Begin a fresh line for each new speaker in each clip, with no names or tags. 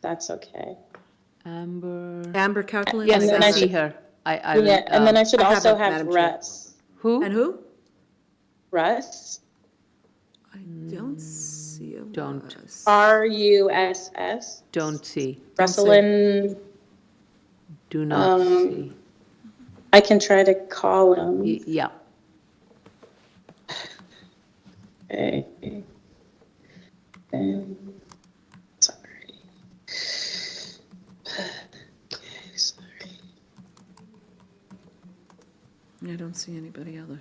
that's okay.
Amber,
Amber Coutlan?
yes,
then
I
I
see
should-
her. I, I,
Yeah, and then
uh,
I should
I have
also
it,
have
Madam Chair.
Russ.
who?
And who?
Russ,
I don't see a
Don't.
Russ.
R U S S,
Don't see,
Russelin.
do not
Um,
see.
I can try to call him.
Y- Yeah,
Okay. Um, Sorry. Okay, sorry.
I don't see anybody other.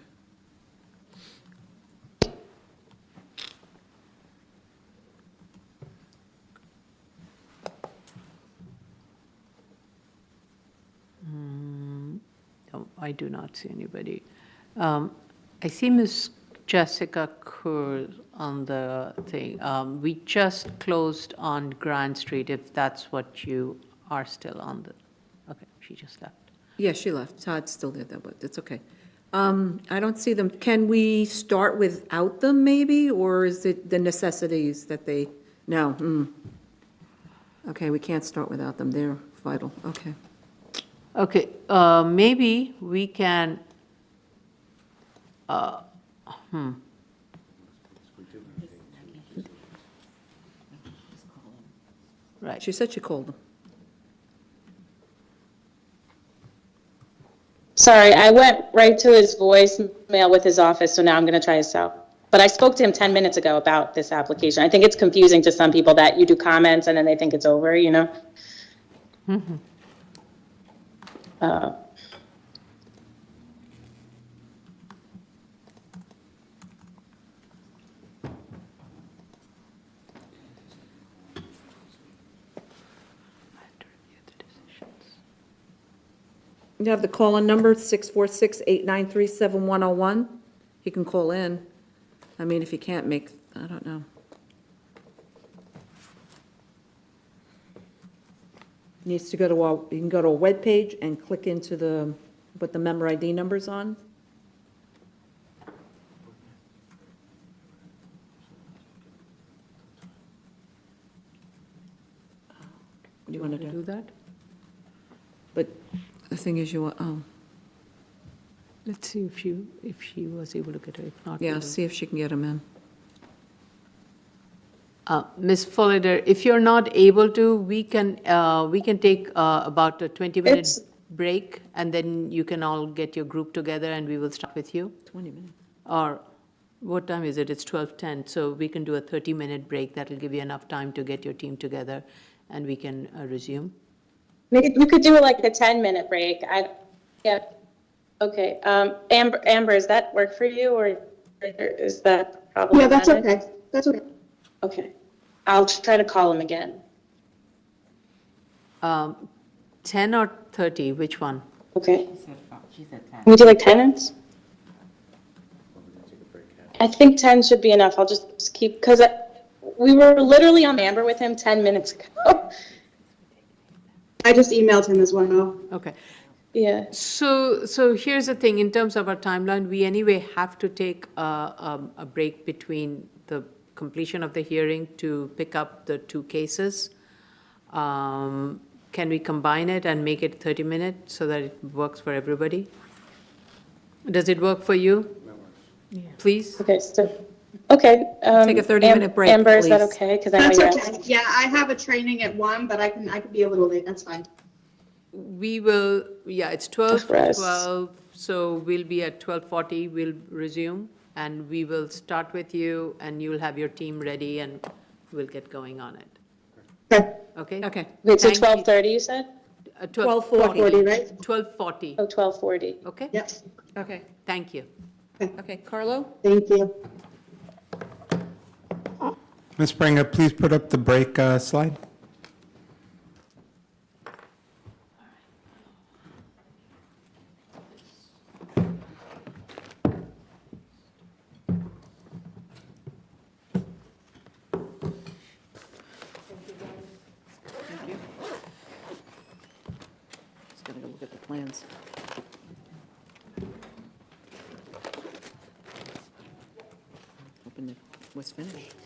no, Mm, oh, I do not see anybody. Um, I see Miss Jessica Kerr on the thing. Um, We just closed on Grand Street, if that's what you are still on the, okay, she just left.
Yeah, she left. Todd's still there, though, but it's okay. Um, I don't see them. Can we start without them, maybe? Or is it the necessities that they, no, hmm. Okay, we can't start without them. They're vital. Okay.
Okay, uh, maybe we can, uh, hmm. Right,
She said she called them.
Sorry, I went right to his voicemail with his office, so now I'm going to try his cell. But I spoke to him 10 minutes ago about this application. I think it's confusing to some people that you do comments and then they think it's over, you know? Uh,
You have the call-in number, 646-893-7101. He can call in. I mean, if he can't make, I don't know. Needs to go to, our- you can go to a webpage and click into the, put the member ID numbers on. Do you want to do?
do that?
But the thing is, you, um,
Let's see if you, if she was able to get it, if not. we
yeah,
will-
see if she can get him in.
Uh, Ms. Follender, if you're not able to, we can, uh, we can take uh, about a 20-minute
It's-
break, and then you can all get your group together, and we will start with you.
20 minutes.
Or, what time is it? It's 12:10, so we can do a 30-minute break. That'll give you enough time to get your team together, and we can uh, resume.
Maybe you could do like a 10-minute break. I, yeah, okay. Um, Amber, Amber, does that work for you or or is that
Yeah, that's
problematic?
okay. That's okay.
Okay. I'll try to call him again.
Um, 10 or 30, which one?
Okay.
She said fi- She said ten.
Can we do like 10 minutes? I think 10 should be enough. I'll just just keep, because we were literally on Amber with him 10 minutes ago.
I just emailed him as well.
Okay.
Yeah.
So, so here's the thing, in terms of our timeline, we anyway have to take a, um, a break between the completion of the hearing to pick up the two cases. Um, Can we combine it and make it 30 minutes so that it works for everybody? Does it work for you? Please?
Okay, so, okay. um,
Take a 30-minute
Am-
break,
Amber, is that
please.
okay? Because I know
That's
you're out.
okay. Yeah, I have a training at one, but I can, I can be a little late. That's fine.
We will, yeah, it's 12,
For us.
12, so we'll be at 12:40, we'll resume, and we will start with you, and you'll have your team ready, and we'll get going on it,
Okay.
okay?
Okay.
Wait, so
Thank you.
12:30 you said?
Uh,
12:40.
40, right?
12:40,
Oh, 12:40.
okay?
Yep.
Okay,
Thank you.
okay, Carlo?
Thank you.
Ms. Springer, please put up the break uh, slide.
Just gonna go look at the plans. Open it, was finished.